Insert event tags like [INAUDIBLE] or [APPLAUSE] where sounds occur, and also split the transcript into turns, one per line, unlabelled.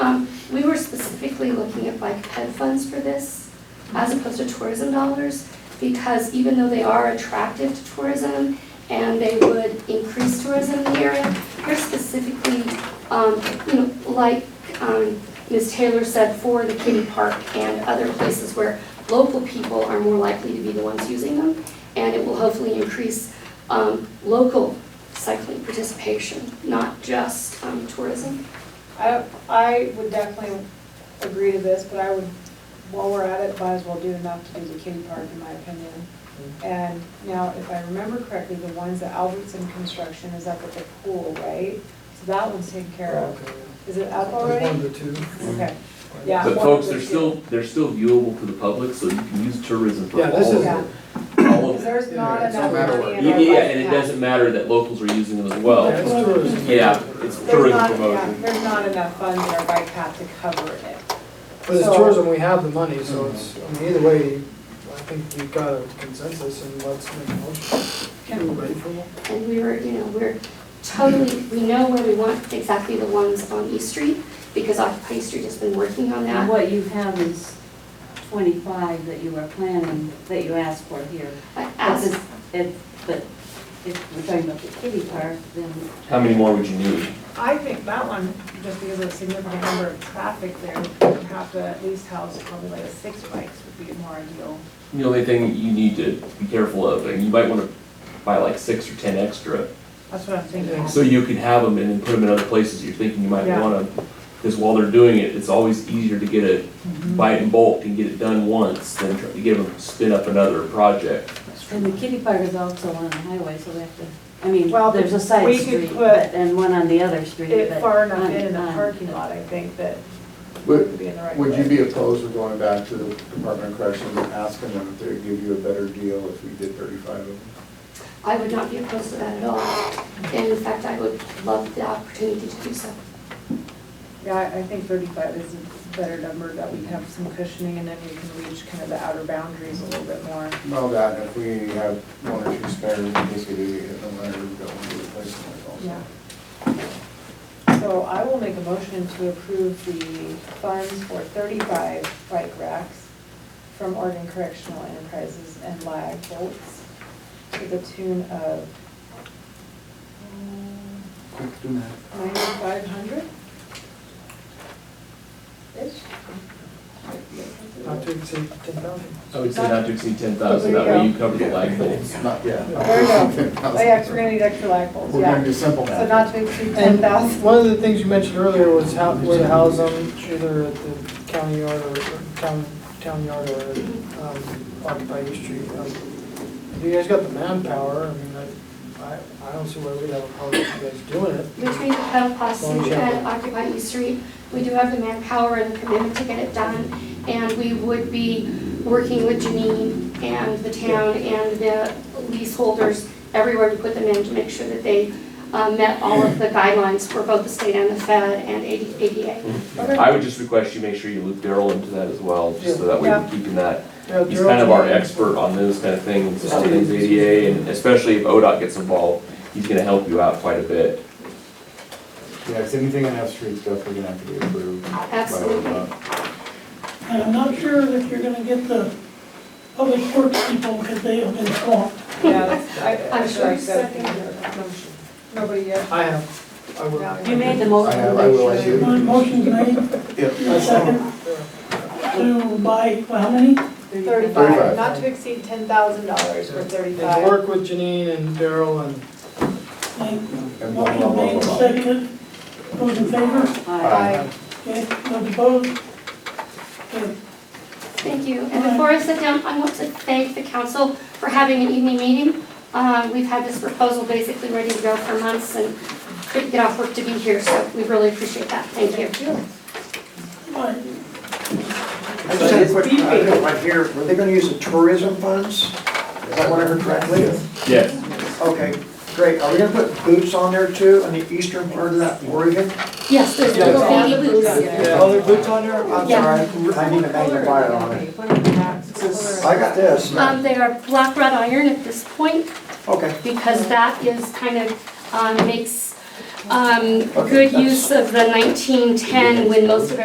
specifically looking at like ped funds for this as opposed to tourism dollars, because even though they are attractive to tourism and they would increase tourism in the area, they're specifically, um, you know, like, um, Ms. Taylor said, for the kitty park and other places where local people are more likely to be the ones using them. And it will hopefully increase, um, local cycling participation, not just, um, tourism.
I, I would definitely agree to this, but I would, while we're at it, might as well do enough to do the kitty park, in my opinion.
Mm-hmm.
And now, if I remember correctly, the ones that Albertson Construction is up at the pool, right? So that one's taken care of. Is it up
There's one
already?
to two.
Okay,
Oh.
yeah.
But
one
folks,
of the
they're still, they're still viewable to the public, so you can use tourism for
Yeah,
all
this
of
is,
Yeah.
them. All
Because
of-
there's not
Yeah, it's no
enough
matter
money
what.
in
Yeah,
our
yeah,
budget
and it
now.
doesn't matter that locals are using them as well.
that's tourism.
Yeah, it's
There's
tourism
not-
promotion.
yeah, There's not enough funds in our bike path to cover it.
But it's
So-
tourism, we have the money, so it's, I mean, either way, I think we've got a consensus and let's make a motion. Can we wait for one?
And we were, you know, we're totally, we know where we want exactly the ones on East Street, because Occupy East Street has been working on
And
that.
what you have is twenty-five that you are planning, that you asked for here.
I
But
asked-
this- if- But if we're talking about the kitty park, then
How many more would you need?
I think that one, just because of the significant number of traffic there, would have to at least house probably like six bikes would be more ideal.
The only thing you need to be careful of, and you might wanna buy like six or ten extra,
That's what I'm thinking.
so you can have them and then put them in other places you're thinking you might
Yeah.
want them. Cause while they're doing it, it's always easier to get it, buy it in bulk and get it done once than try to get them, spin up another project.
And the kitty park is also on the highway, so we have to, I mean,
Well,
there's a side
we could
street,
put
but, and one on the other street,
It
but.
far enough
on-
in in the
on-
parking lot, I think, that it would
Would,
be in the right
would you
place.
be opposed to going back to the Department of Corrections and asking them if they'd give you a better deal if we did thirty-five of them?
I would not be opposed to that at all. And in fact, I would love the opportunity to do so.
Yeah, I- I think thirty-five is a better number, that we have some cushioning, and then we can reach kind of the outer boundaries a little bit more.
Well, that, if we have one or two spares, in case we do get hit on there, we've got one to replace them with also.
Yeah. So I will make a motion to approve the funds for thirty-five bike racks from Oregon Correctional Enterprises and Lag Bolts to the tune of um,
Quick, do that.
ninety-five hundred?
Not to exceed ten thousand.
I would say not to exceed ten thousand, that way you cover the lag bolts.
Not, yeah.
There we
[LAUGHS]
go. Oh, yeah, 'cause we're gonna need extra lag bolts,
We're gonna
yeah.
be simple now.
So not to exceed ten thousand.
One of the things you mentioned earlier was how, where to house them, either at the county yard or town, town yard or um, Occupy East Street. Um, If you guys got the manpower, I mean, I- I, I don't see why we'd have a problem with you guys doing it.
Between the pedal posse
Long
and
Chapel.
Occupy East Street, we do have the manpower and the commitment to get it done. And we would be working with Janine and the town and the leaseholders everywhere to put them in to make sure that they uh, met all of the guidelines for both the state and the Fed and ADA.
I would just request you make sure you loop Daryl into that as well, just so that way
Yeah.
we're keeping that.
Yeah,
He's
Gerald,
kind of our
you know,
expert on those kind of things, on things ADA, and especially if ODOT gets involved, he's gonna help you out quite a bit.
Yeah, it's anything on F Street's definitely gonna have to be approved. by
Absolutely.
ODOT.
And I'm not sure that you're gonna get the public works people because they have been swamped.
Yeah, that's- I-
I'm sure
I'm sure I
it's
said
second.
Nobody yet?
I have, I will.
No.
You made the
I
motion.
have, I will, I
My
do.
motion's made
Yep.
second. to buy, well, how many?
Thirty-five, not to exceed ten thousand dollars for
And
thirty-five.
work with Janine and Daryl and
Like,
And blah, blah,
Motion
blah, blah,
made,
blah.
seconded. Those in favor?
Aye.
Okay, those opposed? Okay.
Thank you. And before I sit down, I want to thank the council for having an evening meeting. Uh, We've had this proposal basically ready to go for months and couldn't get off work to be here, so we really appreciate that. Thank you.
Aye.
I just had a quick, I don't right here, were they gonna use the tourism funds? Is that what I heard correctly?
Yes.
Okay, great. Are we gonna put boots on there too, on the eastern part of that Oregon?
Yes, there's
Yeah,
little
it's-
baby boots.
Yeah.
Oh, there are boots on there? I'm
Yeah.
sorry, I need a magnifier on it. I got this.
Um, They are black wrought iron at this point
Okay,
because that is kind of um, makes um,
Okay,
good
that's-
use of the 1910 when most of